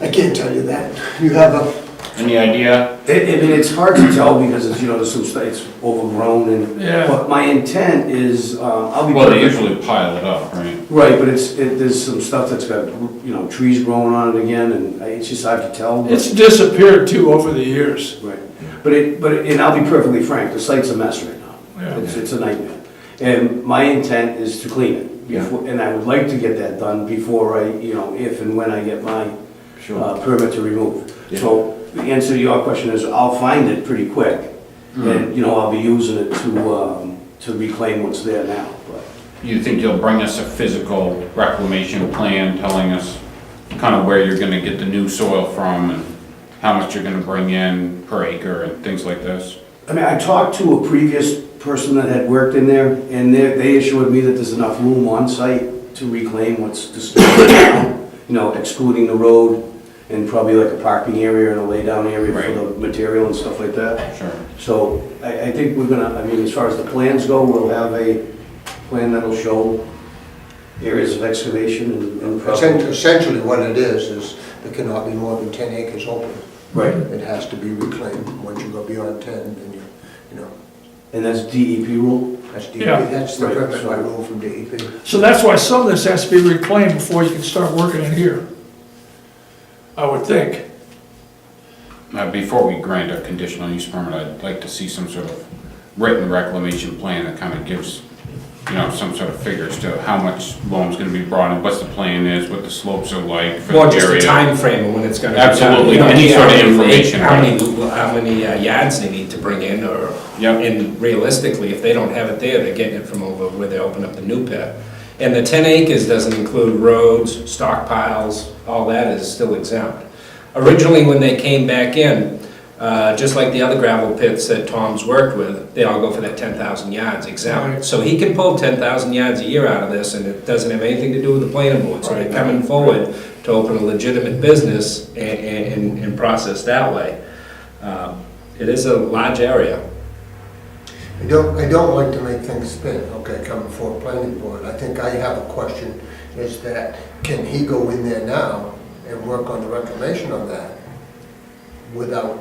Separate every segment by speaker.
Speaker 1: I can't tell you that. You have a,
Speaker 2: Any idea?
Speaker 3: I I mean, it's hard to tell because, as you know, the soup's, it's overgrown and.
Speaker 4: Yeah.
Speaker 3: But my intent is, uh, I'll be.
Speaker 2: Well, they usually pile it up, right?
Speaker 3: Right, but it's, it, there's some stuff that's got, you know, trees growing on it again, and I- it's just hard to tell. but-
Speaker 4: It's disappeared too over the years.
Speaker 3: Right, but it, but, it- and I'll be perfectly frank, the site's a mess right
Speaker 4: Yeah.
Speaker 3: now. It's, it's a nightmare. And my intent is to clean it, before- and I would like to get that done before I, you know, if and when I get my uh, permit to remove. So the answer to your question is, I'll find it pretty quick, and, you know, I'll be using it to, um, to reclaim what's there now, but.
Speaker 2: You think you'll bring us a physical reclamation plan telling us kind of where you're gonna get the new soil from and how much you're gonna bring in per acre and things like this?
Speaker 3: I mean, I talked to a previous person that had worked in there, and they, they assured me that there's enough room on site to reclaim what's disturbed now, you know, excluding the road and probably like a parking area and a laydown area
Speaker 2: Right.
Speaker 3: for the material and stuff like that.
Speaker 2: Sure.
Speaker 3: So I, I think we're gonna, I mean, as far as the plans go, we'll have a plan that'll show areas of excavation and-
Speaker 1: essen-
Speaker 3: and. probably-
Speaker 1: essentially what it is, is there cannot be more than 10 acres open.
Speaker 3: Right,
Speaker 1: It has to be reclaimed. Once you go beyond 10, then you, you know,
Speaker 3: and that's DEP rule?
Speaker 1: that's DEP.
Speaker 4: Yeah.
Speaker 1: That's the
Speaker 3: Right,
Speaker 1: permit
Speaker 3: so-
Speaker 1: by rule from E DEP.
Speaker 4: So that's why some of this has to be reclaimed before you can start working in here. I would think.
Speaker 2: Now, Uh, before we grant a conditional use permit, I'd like to see some sort of written reclamation plan that kind of gives, you know, some sort of figures to how much loam's gonna be brought in, what's the plan is, what the slopes are like for the area.
Speaker 5: Well, just the timeframe of when it's gonna be done.
Speaker 2: Absolutely,
Speaker 5: You know,
Speaker 2: any sort of
Speaker 5: how many-
Speaker 2: information,
Speaker 5: How many,
Speaker 2: right.
Speaker 5: lu- how many uh, yards they need to bring in, or,
Speaker 2: Yep.
Speaker 5: and realistically, if they don't have it there, they're getting it from over where they open up the new pit. And the ten acres doesn't include roads, stockpiles, all that is still exempt. Originally, when they came back in, uh, just like the other gravel pits that Tom's worked with, they all go for that ten thousand yards exempt.
Speaker 4: Right.
Speaker 5: So he can pull ten thousand yards a year out of this, and it doesn't have anything to do with the planning board. So they're coming forward to open a legitimate business and, and, and process that way. Um, It is a large area.
Speaker 1: I don't, I don't like to make things spin, okay, coming for a planning board. I think I have a question, is that can he go in there now and work on the reclamation on that without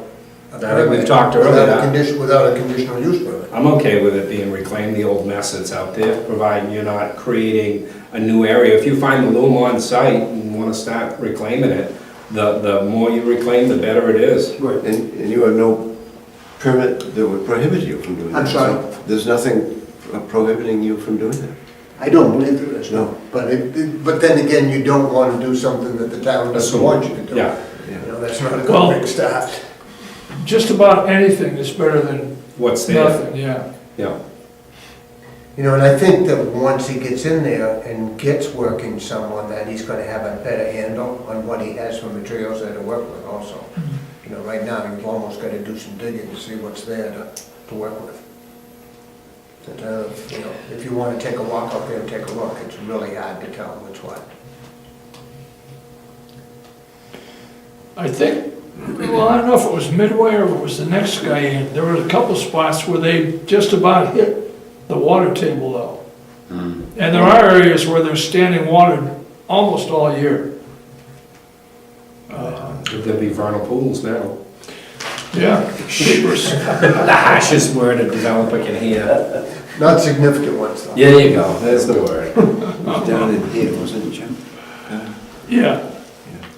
Speaker 1: a
Speaker 5: I think we've
Speaker 1: permit,
Speaker 5: talked
Speaker 1: Without
Speaker 5: earlier.
Speaker 1: a condition, without a conditional use permit?
Speaker 5: I'm okay with it being reclaimed, the old mess that's out there, providing you're not creating a new area. If you find the loom on site and want to start reclaiming it, the, the more you reclaim, the better it is.
Speaker 3: Right.
Speaker 6: And, and you have no permit that would prohibit you from doing that?
Speaker 1: I'm sorry?
Speaker 6: so There's nothing prohibiting you from doing that?
Speaker 1: I don't believe there is,
Speaker 6: No.
Speaker 1: no. But it- it, but then again, you don't want to do something that the town doesn't
Speaker 5: Assume.
Speaker 1: want you to do.
Speaker 5: Yeah.
Speaker 1: You know, that's not a
Speaker 4: Well-
Speaker 1: good big start.
Speaker 4: Just about anything is better than
Speaker 5: What's there?
Speaker 4: nothing, yeah.
Speaker 5: Yeah.
Speaker 1: You know, and I think that once he gets in there and gets working someone, that he's gonna have a better handle on what he has for materials there to work with also. You know, right now, you've almost gotta do some digging to see what's there to, to work with. But, uh, you know, if you wanna take a walk out there and take a look, it's really hard to tell what's what.
Speaker 4: I think, well, I don't know if it was Midway or it was the next guy in, there were a couple spots where they just about hit the water table though. And there are areas where there's standing water almost all year.
Speaker 5: There'll be vernal pools now.
Speaker 4: Yeah. Shivers.
Speaker 5: The harshest word a developer can hear.
Speaker 1: Not significant ones though.
Speaker 5: There you go, there's the word.
Speaker 6: It was down in here, wasn't it, Jim?
Speaker 4: Yeah,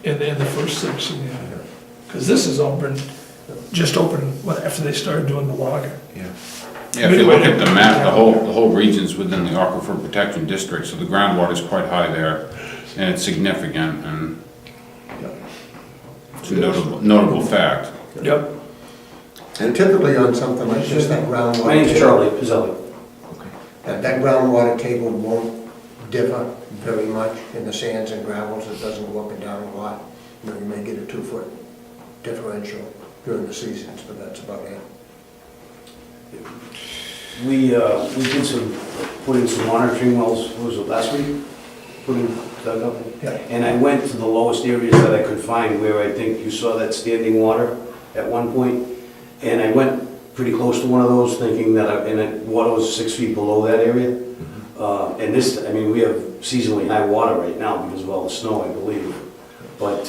Speaker 4: in, in the first section, yeah. Because this is open, just open when- after they started doing the logging.
Speaker 6: Yeah.
Speaker 2: Yeah, if you look at the map, the whole, the whole region's within the aquifer protection district, so the groundwater's quite high there, and it's significant, and it's a notable, notable fact.
Speaker 4: Yep.
Speaker 1: And typically on something like this, that groundwater.
Speaker 3: My name's Charlie Pizzelli.
Speaker 1: That that groundwater table won't differ very much in the sands and gravels, it doesn't go up and down a lot. You know, you may get a two-foot differential during the seasons, but that's about it.
Speaker 3: We, uh, we did some, put in some monitoring wells, what was it, last week? Put in, dug up?
Speaker 1: Yeah.
Speaker 3: And I went to the lowest areas that I could find where I think you saw that standing water at one point. And I went pretty close to one of those thinking that, I- and it, water was six feet below that area. Uh, and this, I mean, we have seasonally high water right now because of all the snow, I believe. But,